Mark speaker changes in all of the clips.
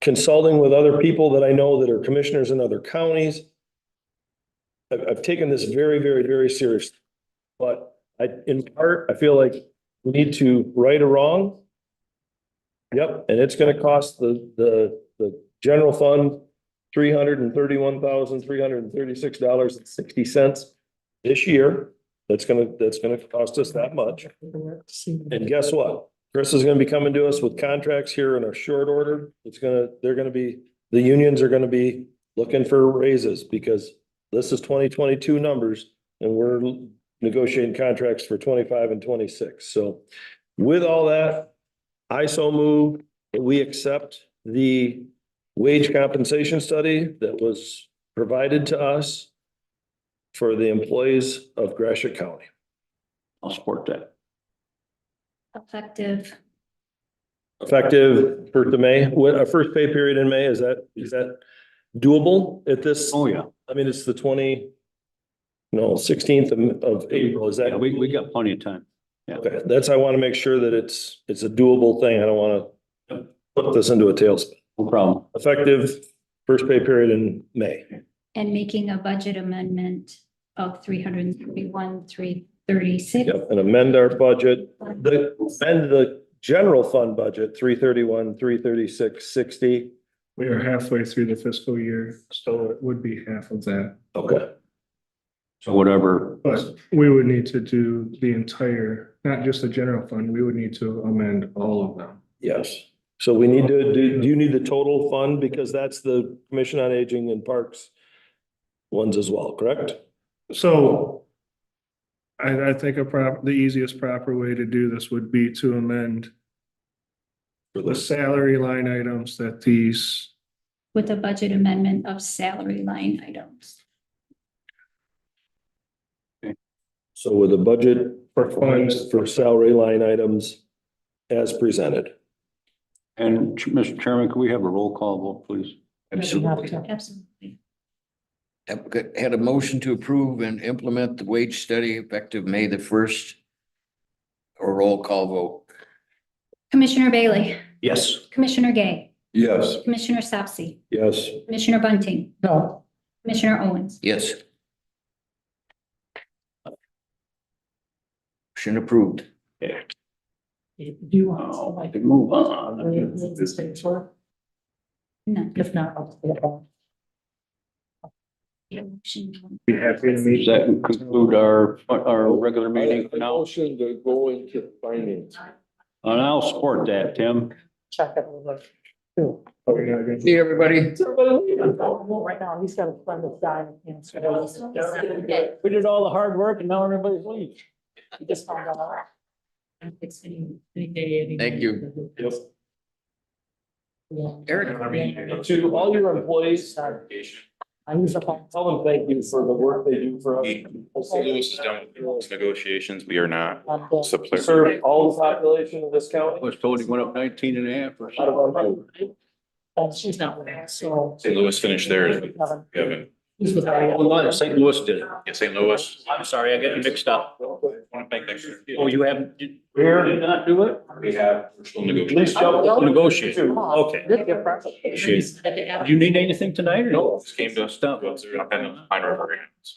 Speaker 1: consulting with other people that I know that are commissioners in other counties. I've, I've taken this very, very, very seriously. But I, in part, I feel like we need to right a wrong. Yep, and it's gonna cost the, the, the general fund three hundred and thirty-one thousand, three hundred and thirty-six dollars and sixty cents this year. That's gonna, that's gonna cost us that much. And guess what? Chris is gonna be coming to us with contracts here in a short order. It's gonna, they're gonna be, the unions are gonna be looking for raises because this is twenty twenty-two numbers and we're negotiating contracts for twenty-five and twenty-six. So with all that, I so move that we accept the wage compensation study that was provided to us for the employees of Gratiot County.
Speaker 2: I'll support that.
Speaker 3: Effective,
Speaker 1: Effective first of May, what, a first pay period in May, is that, is that doable at this?
Speaker 2: Oh, yeah.
Speaker 1: I mean, it's the twenty, no, sixteenth of, of April, is
Speaker 2: Yeah,
Speaker 1: that?
Speaker 2: we, we got plenty of time.
Speaker 1: Okay, that's, I want to make sure that it's, it's a doable thing. I don't want to put this into a tailspin.
Speaker 2: No problem.
Speaker 1: Effective first pay period in May.
Speaker 3: and making a budget amendment of three hundred and thirty-one, three thirty-six.
Speaker 1: Yep, and amend our budget, the, amend the general fund budget, three thirty-one, three thirty-six, sixty.
Speaker 4: We are halfway through the fiscal year, so it would be half of that.
Speaker 1: Okay.
Speaker 2: So whatever,
Speaker 4: But we would need to do the entire, not just the general fund, we would need to amend all of them.
Speaker 1: Yes, so we need to, do, do you need the total fund, because that's the Commission on Aging and Parks ones as well, correct?
Speaker 4: So I, I think a prop, the easiest proper way to do this would be to amend
Speaker 1: For
Speaker 4: the
Speaker 1: this,
Speaker 4: salary line items that these,
Speaker 3: With a budget amendment of salary line items.
Speaker 1: so with a budget
Speaker 4: for funds,
Speaker 1: for salary line items as presented.
Speaker 2: and Ch- Mr. Chairman, can we have a roll call vote, please?
Speaker 5: Absolutely.
Speaker 3: Absolutely.
Speaker 5: Have- Had a motion to approve and implement the wage study effective May the first. A roll call vote.
Speaker 3: Commissioner Bailey,
Speaker 2: Yes.
Speaker 3: Commissioner Gay,
Speaker 1: Yes.
Speaker 3: Commissioner Sapsi,
Speaker 1: Yes,
Speaker 3: Commissioner Bunting,
Speaker 5: No.
Speaker 3: Commissioner Owens.
Speaker 5: Yes. Motion approved.
Speaker 6: Do you want?
Speaker 2: Oh, I
Speaker 6: somebody
Speaker 2: can move
Speaker 6: to
Speaker 2: on.
Speaker 6: read the state tour?
Speaker 3: None.
Speaker 6: If not, I'll. stay at home.
Speaker 4: be happy to
Speaker 2: Does
Speaker 4: meet.
Speaker 2: that conclude our, our regular meeting for now?
Speaker 7: Motion to go into finance.
Speaker 2: And I'll support that, Tim.
Speaker 6: Check it over. Too.
Speaker 4: Oh, you're not gonna-
Speaker 5: See everybody.
Speaker 6: Well, Right now, he's got a friend that's dying. and so-
Speaker 2: We did all the hard work and now everybody's leaving.
Speaker 6: He just found out. It's any, any day, any.
Speaker 5: Thank you.
Speaker 1: Yep.
Speaker 6: Yeah.
Speaker 5: Eric, I
Speaker 7: To all your employees,
Speaker 6: I use up all.
Speaker 7: tell them thank you for the work they do for us.
Speaker 8: St. Louis is done with those negotiations. We are not
Speaker 6: all the-
Speaker 8: suppliers.
Speaker 7: Serve all the population of this
Speaker 2: I
Speaker 7: county.
Speaker 2: was told he went up nineteen and a half or
Speaker 7: Out of
Speaker 2: something.
Speaker 7: our mind.
Speaker 6: And she's not with us, so.
Speaker 8: St. Louis finished theirs.
Speaker 6: Kevin.
Speaker 8: We haven't-
Speaker 6: He's with. Ariana.
Speaker 2: St. Louis did it.
Speaker 8: Yeah, St. Louis.
Speaker 2: I'm sorry, I got it mixed up.
Speaker 8: Want to thank them.
Speaker 2: Oh, you haven't, did did not do it?
Speaker 8: We have. Still negotiating.
Speaker 2: Please jump, negotiate. Okay.
Speaker 6: Did get property.
Speaker 2: Appreciate
Speaker 6: At the end.
Speaker 2: Do you need anything tonight or?
Speaker 8: No, just came to us.
Speaker 2: Stop.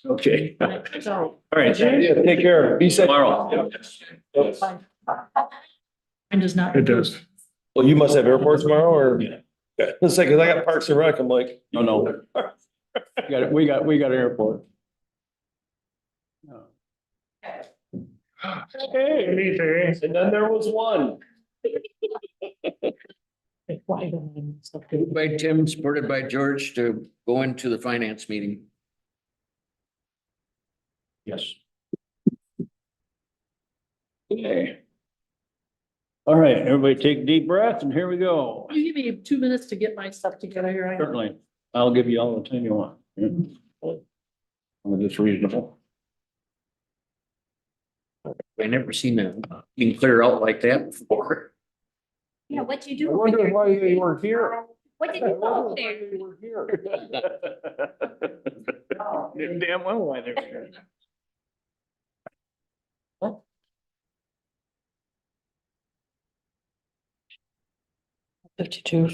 Speaker 2: Okay. All
Speaker 6: So,
Speaker 2: right.
Speaker 1: take care, be safe.
Speaker 2: Tomorrow.
Speaker 7: Yes.
Speaker 6: fine. Mine does not.
Speaker 4: It does.
Speaker 1: Well, you must have airport tomorrow, or?
Speaker 2: Yeah.
Speaker 1: Yeah, it's like, 'cause I got Parks and Rec, I'm like,
Speaker 2: No, no. We Got it. We got, we got airport.
Speaker 7: And then there was one.
Speaker 6: Why don't I?
Speaker 5: Moved By Tim, supported by George to go into the finance meeting.
Speaker 2: Yes. Okay. All right, everybody take a deep breath and here we go.
Speaker 6: Will You give me two minutes to get my stuff together here. I-
Speaker 2: Certainly, I'll give you all the time you want. It's reasonable.
Speaker 5: I never seen a meeting clear out like that before.
Speaker 3: Yeah, what'd you
Speaker 7: I
Speaker 3: do? over
Speaker 7: wondered
Speaker 3: there?
Speaker 7: why they were here.
Speaker 3: What did
Speaker 7: I
Speaker 3: you do
Speaker 7: wondered why
Speaker 3: over there?
Speaker 7: they were here.
Speaker 2: Damn well why they're here.
Speaker 6: Fifty-two.